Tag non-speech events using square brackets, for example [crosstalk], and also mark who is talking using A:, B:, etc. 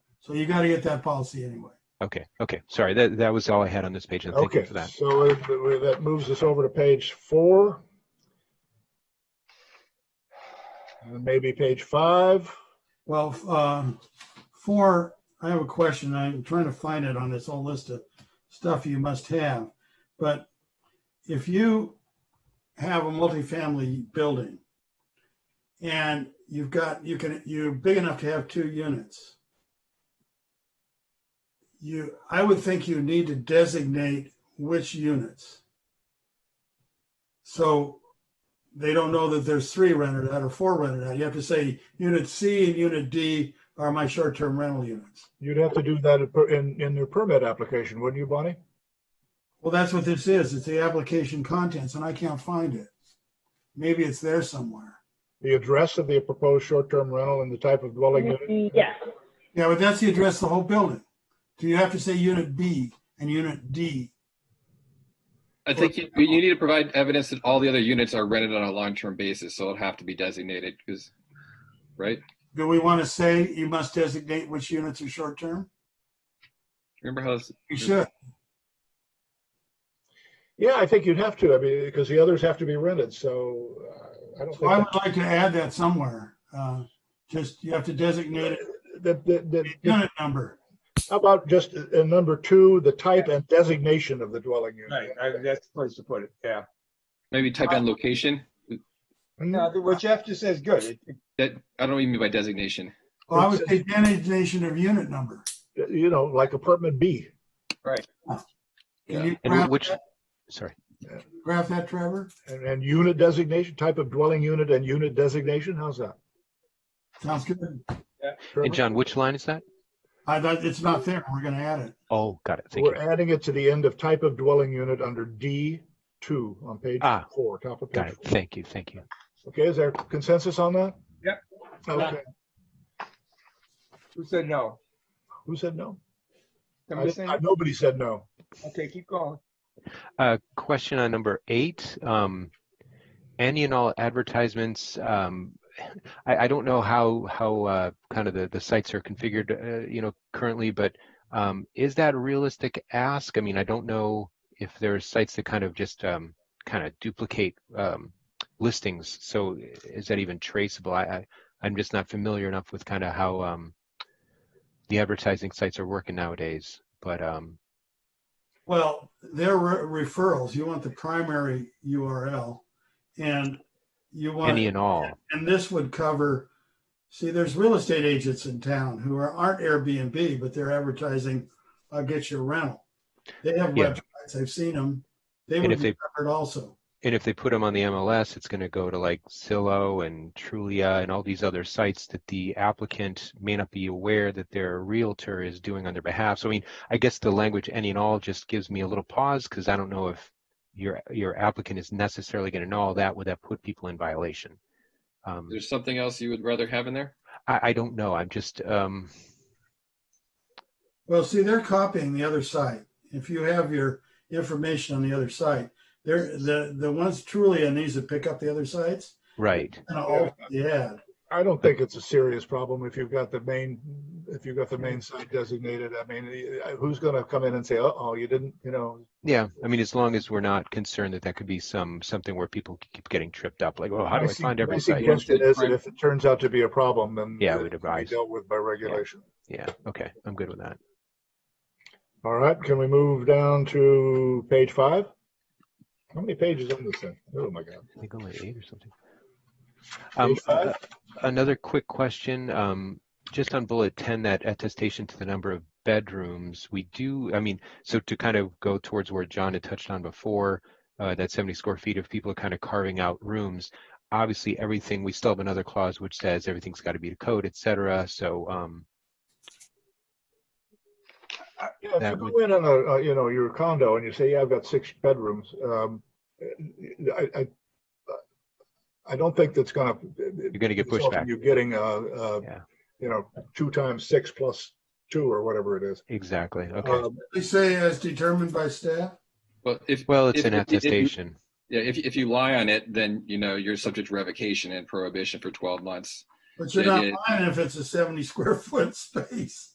A: So you got to get that policy anyway.
B: Okay, okay, sorry, that, that was all I had on this page, and thank you
C: Okay,
B: for that.
C: so it- that moves us over to page four. And Maybe page five.
A: Well, f- um, four, I have a question. I'm trying to find it on this whole list of stuff you must have. But if you have a multifamily building and you've got, you can, you're big enough to have two units. You, I would think you need to designate which units. So they don't know that there's three rented out or four rented out. You have to say unit C and unit D are my short-term rental units.
C: You'd have to do that in per- in, in their permit application, wouldn't you, Bonnie?
A: Well, that's what this is. It's the application contents and I can't find it. Maybe it's there somewhere.
C: The address of the proposed short-term rental and the type of dwelling unit.
D: Yes,
A: Yeah, but that's the address of the whole building. Do you have to say unit B and unit D?
E: I think you, you need to provide evidence that all the other units are rented on a long-term basis, so it'll have to be designated, because, right?
A: Do we want to say you must designate which units are short-term?
E: Remember how this,
A: You should.
C: Yeah, I think you'd have to, I mean, because the others have to be rented, so uh, I don't
A: So I
C: think
A: would like to add that somewhere. Uh, Just, you have to designate it,
C: that, that, that, that-
A: unit number.
C: how about just in number two, the type and designation of the dwelling
F: Right,
C: unit?
F: I- that's the place to put it, yeah.
E: maybe type in location,
C: Hmm?
F: No, I think what Jeff just said is good. It- it-
E: that, I don't even mean by designation.
A: Well, I would say designation of unit number.
C: You know, like apartment B.
A: Can you
B: And wh-
A: graph
B: which,
C: uh,
A: that-
B: sorry,
A: graph that, Trevor?
C: And, and unit designation, type of dwelling unit and unit designation, how's that?
A: Sounds good.
C: Trevor?
B: and John, which line is that?
A: I, that, it's not there. We're gonna add it.
B: Oh, got it, thank
C: We're
B: you.
C: adding it to the end of type of dwelling unit under D two on page
B: Ah,
C: four, top of
B: Got
C: page.
B: it, thank you, thank you.
C: four. Okay, is there consensus on that?
F: Yep.
C: Okay,
F: Who said no?
C: who said no? I-
F: Somebody
C: I-
F: saying,
C: Nobody said no.
F: okay, keep going.
B: Uh, question on number eight, um, any and all advertisements, um, I, I don't know how, how, uh, kind of the, the sites are configured, uh, you know, currently, but, um, is that a realistic ask? I mean, I don't know if there are sites that kind of just, um, kind of duplicate, um, listings. So is that even traceable? I, I, I'm just not familiar enough with kind of how, um, the advertising sites are working nowadays, but, um,
A: Well, they're re- referrals. You want the primary URL and you want,
B: any and all.
A: and this would cover, see, there's real estate agents in town who are, aren't Airbnb, but they're advertising, I'll get you a rental. They have
B: Yeah.
A: websites. I've seen them. They
B: And
A: would
B: if
A: be
B: they-
A: covered also.
B: and if they put them on the MLS, it's going to go to like Zillow and Trulia and all these other sites that the applicant may not be aware that their realtor is doing on their behalf. So I mean, I guess the language any and all just gives me a little pause because I don't know if your your applicant is necessarily going to know all that. Would that put people in violation? Um,
E: There's something else you would rather have in there?
B: I, I don't know. I'm just um,
A: Well, see, they're copying the other site. If you have your information on the other site, they're, the, the ones truly needs to pick up the other sites.
B: right.
A: And all, yeah,
C: I don't think it's a serious problem if you've got the main, if you've got the main site designated. I mean, eh, who's gonna come in and say, uh-oh, you didn't, you know?
B: Yeah, I mean, as long as we're not concerned that that could be some something where people keep getting tripped up, like, oh, how do I
C: My su-
B: find
C: my
B: every site?
C: Suggestion is that if it turns out to be a problem, then.
B: Yeah,
C: it
B: we'd
C: be
B: advise.
C: Dealt with by regulation.
B: Yeah, okay, I'm good with that.
C: All right, can we move down to page five? How many pages on this thing? Oh, my God.
B: I think only eight or something. Um, uh,
C: Page five?
B: another quick question, um, just on bullet ten, that attestation to the number of bedrooms, we do, I mean, so to kind of go towards where John had touched on before, uh, that seventy square feet of people are kind of carving out rooms. Obviously, everything, we still have another clause which says everything's got to be to code, et cetera, so, um,
C: Yeah, if
B: Uh, that
C: you
B: would-
C: go in on a, uh, you know, your condo and you say, yeah, I've got six bedrooms, um, I, I, I don't think that's gonna.
B: you're gonna get
C: result in
B: pushback.
C: You getting, uh, uh,
B: Yeah.
C: you know, two times six plus two or whatever it is.
B: Exactly, okay.
C: Um,
A: they say as determined by staff.
E: Well, if,
B: Well, it's
E: if-
B: an
E: if- if-
B: attestation.
E: yeah, if, if you lie on it, then, you know, you're subject to revocation and prohibition for twelve months.
A: But you're
E: Yeah,
A: not
E: yeah.
A: lying if it's a seventy square foot [laughs] space.